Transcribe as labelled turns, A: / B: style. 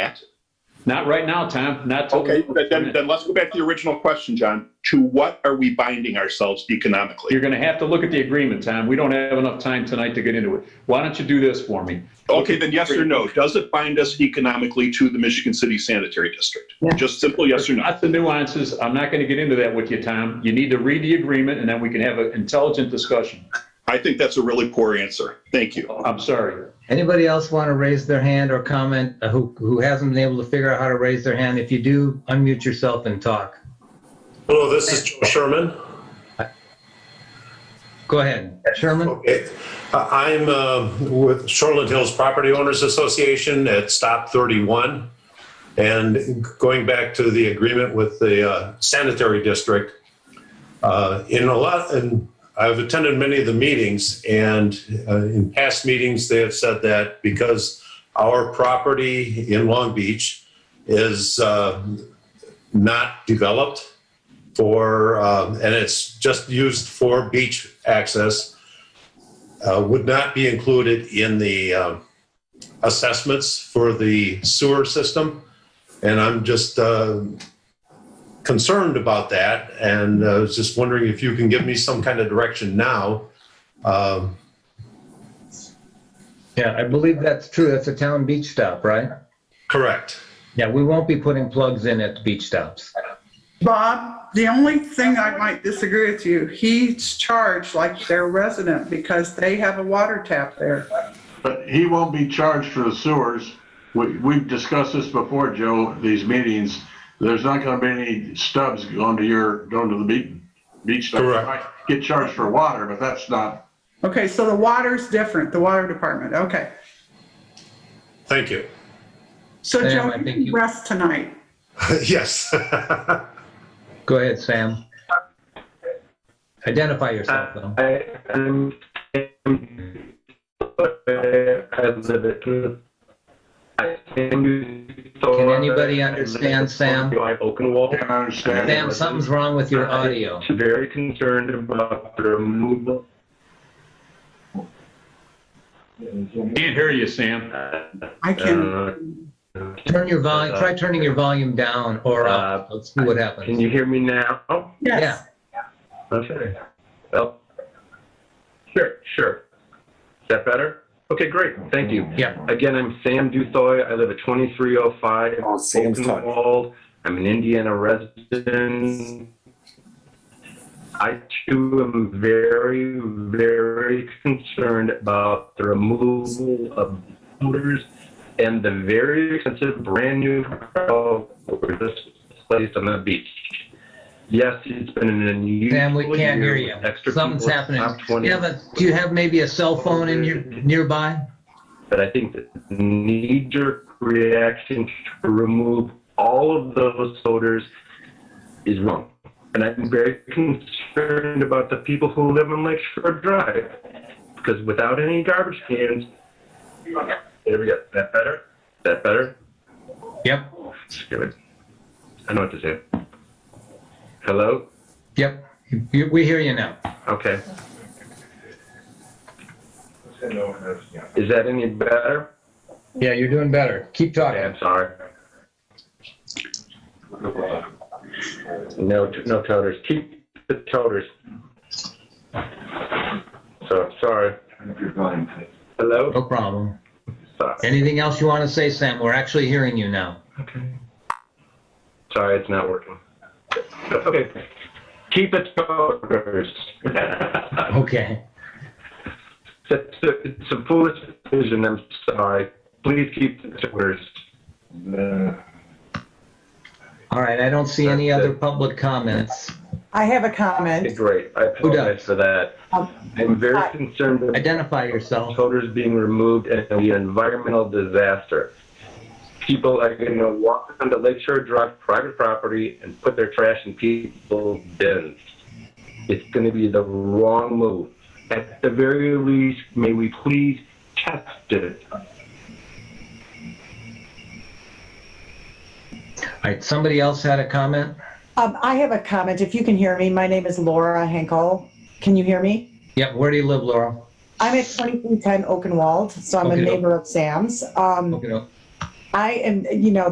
A: Matt?
B: Not right now, Tom, not till.
A: Okay, but then, then let's go back to the original question, John. To what are we binding ourselves
B: You're
A: economically?
B: gonna have to look at the agreement, Tom. We don't have enough time tonight to get into it. Why don't you do this for me?
A: Okay, then yes or no. Does it bind us economically to the Michigan City Sanitary District? Just simple yes or no.
B: Lots of nuances. I'm not gonna get into that with you, Tom. You need to read the agreement and then we can have an intelligent discussion.
A: I think that's a really poor answer. Thank you.
B: I'm sorry.
C: Anybody else want to raise their hand or comment uh, who, who hasn't been able to figure out how to raise their hand? If you do, unmute yourself and talk.
D: Hello, this is Joe Sherman.
C: Go ahead. Sherman?
D: Okay. Uh, I'm um, with Shoreland Hills Property Owners Association at Stop 31. And going back to the agreement with the uh, sanitary district, uh, in a lot, and I've attended many of the meetings, and uh, in past meetings, they have said that because our property in Long Beach is uh, not developed, for, um, and it's just used for beach access, uh, would not be included in the um, assessments for the sewer system. And I'm just uh, concerned about that. And I was just wondering if you can give me some kind of direction now. Um,
C: Yeah, I believe that's true. That's a town beach stop, right?
D: Correct.
C: Yeah, we won't be putting plugs in at the beach stops.
E: Bob, the only thing I might disagree with you, he's charged like their resident because they have a water tap there.
F: But he won't be charged for the sewers. We, we've discussed this before, Joe, these meetings. There's not gonna be any stubs going to your, going to the beach, beach stuff.
D: Correct.
F: Might Get charged for water, but that's not,
E: Okay, so the water's different, the water department, okay.
D: Thank you.
E: So
C: Sam,
E: Joe,
C: I
E: you
C: think
E: can
C: you-
E: rest tonight.
D: Yes.
C: Go ahead, Sam. Identify yourself, though.
G: I am Can
C: Can anybody understand, Sam?
G: I open wall.
F: can't understand.
C: Sam, something's wrong with your audio.
G: I'm Very concerned about the removal.
B: Can't hear you, Sam.
E: I can,
G: Uh,
C: Turn your volume, try turning your volume down or up. Let's see what
G: uh, Can
C: happens.
G: you hear me now? Oh,
E: yes,
G: Okay. Well, sure, sure. Is that better? Okay, great. Thank you.
C: Yeah.
G: Again, I'm Sam Duthoy. I live at 2305
H: Oh, Sam's talking.
G: Oakenwald. I'm an Indiana resident. I too am very, very concerned about the removal of odors and the very expensive brand new car were just placed on the beach. Yes, it's been an unusual
C: Sam, we can't
G: year
C: hear
G: with extra
C: you. Something's
G: people at
C: happening.
G: Top
C: Do
G: 20,
C: you have a, do you have maybe a cell phone in your, nearby?
G: but I think that the knee-jerk reaction to remove all of those odors is wrong. And I'm very concerned about the people who live on Lakeshore Drive, because without any garbage cans, there we go. That better? That better?
C: Yep,
G: Good. I know what to say. Hello?
C: yep. You- We hear you now.
G: Okay. Is that any better?
C: Yeah, you're doing better. Keep
G: Okay,
C: talking.
G: I'm sorry. No, no toters. Keep the toters. So, sorry. Hello?
C: No problem.
G: Sorry.
C: Anything else you want to say, Sam? We're actually hearing you now.
G: Sorry, it's not working. Okay. Keep the toters.
C: Okay.
G: It's a, it's a foolish decision. I'm sorry. Please keep the toters.
C: All right, I don't see any other public comments.
I: I have a comment.
G: Great. I
C: Who does?
G: apologize for that. I'm very concerned about
C: Identify yourself.
G: toters being removed and it'll be an environmental disaster. People are going to walk onto Lakeshore Drive private property and put their trash in people's bins. It's going to be the wrong move. At the very least, may we please test it.
C: All right, somebody else had a comment?
I: Um, I have a comment, if you can hear me. My name is Laura Henkel. Can you hear me?
C: Yep, where do you live, Laura?
I: I'm at 2310 Oakenwald, so I'm a
C: Okay.
I: neighbor of Sam's. Um,
C: Okay, no.
I: I am, you know,